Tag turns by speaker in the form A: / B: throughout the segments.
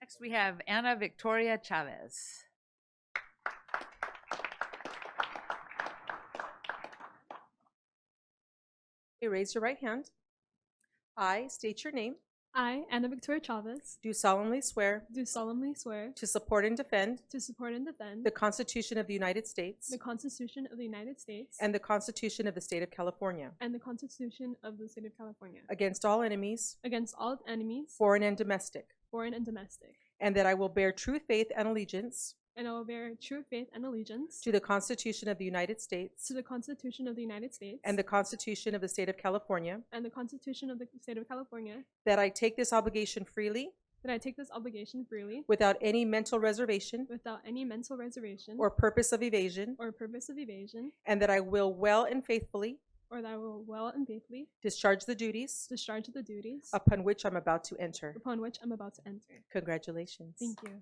A: Next, we have Ana Victoria Chavez.
B: Okay, raise your right hand. I state your name.
C: I, Anna Victoria Chavez,
B: Do solemnly swear
C: do solemnly swear
B: to support and defend
C: to support and defend
B: the Constitution of the United States
C: the Constitution of the United States
B: and the Constitution of the State of California
C: and the Constitution of the State of California
B: against all enemies,
C: against all enemies,
B: foreign and domestic,
C: foreign and domestic,
B: and that I will bear true faith and allegiance
C: and I will bear true faith and allegiance
B: to the Constitution of the United States
C: to the Constitution of the United States
B: and the Constitution of the State of California,
C: and the Constitution of the State of California,
B: that I take this obligation freely
C: that I take this obligation freely
B: without any mental reservation
C: without any mental reservation
B: or purpose of evasion,
C: or purpose of evasion,
B: and that I will well and faithfully
C: or that I will well and faithfully
B: discharge the duties
C: discharge the duties
B: upon which I'm about to enter.
C: upon which I'm about to enter.
B: Congratulations.
C: Thank you.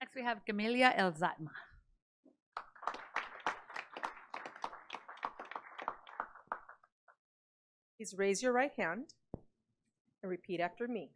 A: Next, we have Camelia El Zatma.
B: Please raise your right hand and repeat after me.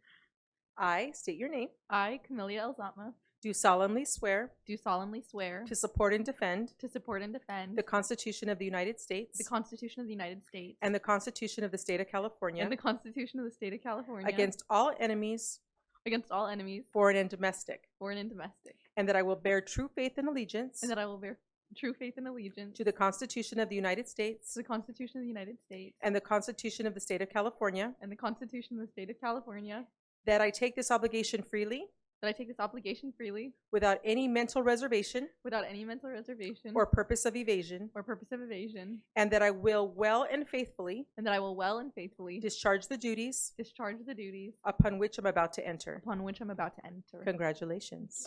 B: I state your name,
D: I, Camelia Elzama,
B: do solemnly swear
D: do solemnly swear
B: to support and defend
D: to support and defend
B: the Constitution of the United States
D: the Constitution of the United States
B: and the Constitution of the State of California
D: and the Constitution of the State of California
B: against all enemies,
D: against all enemies,
B: foreign and domestic,
D: foreign and domestic,
B: and that I will bear true faith and allegiance
D: and that I will bear true faith and allegiance
B: to the Constitution of the United
D: to
B: States
D: the Constitution of the United States
B: and the Constitution of the State of California,
D: and the Constitution of the State of California,
B: that I take this obligation freely
D: that I take this obligation freely
B: without any mental reservation
D: without any mental reservation
C: Mm-hmm.
B: or purpose of evasion,
D: or purpose of evasion,
B: and that I will well and faithfully
D: and that I will well and faithfully
B: discharge the duties
D: discharge the duties
B: upon which I'm about to enter.
D: upon which I'm about to enter.
B: Congratulations.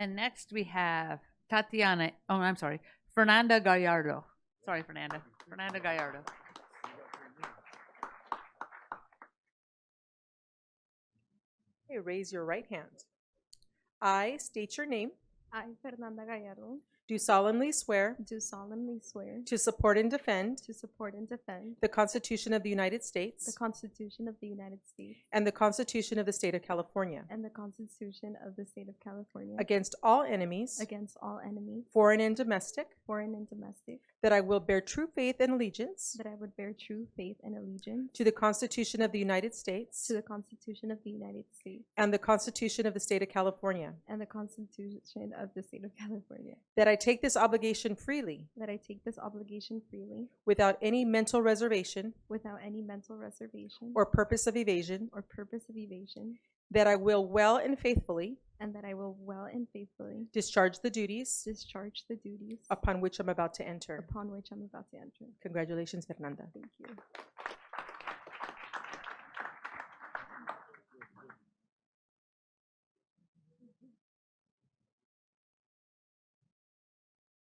A: And next, we have Tatiana, oh, I'm sorry, Fernanda Gallardo. Sorry, Fernanda. Fernanda Gallardo.
B: Okay, raise your right hand. I state your name,
C: I, Fernanda Gallardo,
B: do solemnly swear
C: do solemnly swear
B: to support and defend
C: to support and defend
B: the Constitution of the United States
C: Constitution of the United States
B: and the Constitution of the State of California
C: and the Constitution of the State of California
B: against all enemies,
C: against all enemies,
B: foreign and domestic,
C: foreign and domestic,
B: that I will bear true faith and allegiance
C: that I would bear true faith and allegiance
B: to the Constitution of the United States
C: to the Constitution of the United States
B: and the Constitution of the State of California,
C: and the Constitution of the State of California,
B: that I take this obligation freely
C: that I take this obligation freely
B: without any mental reservation
C: without any mental reservation
B: or purpose of evasion,
C: or purpose of evasion,
B: that I will well and faithfully
C: and that I will well and faithfully
B: discharge the duties
C: discharge the duties
B: upon which I'm about to enter.
C: upon which I'm about to enter.
B: Congratulations, Fernanda.
C: Thank you.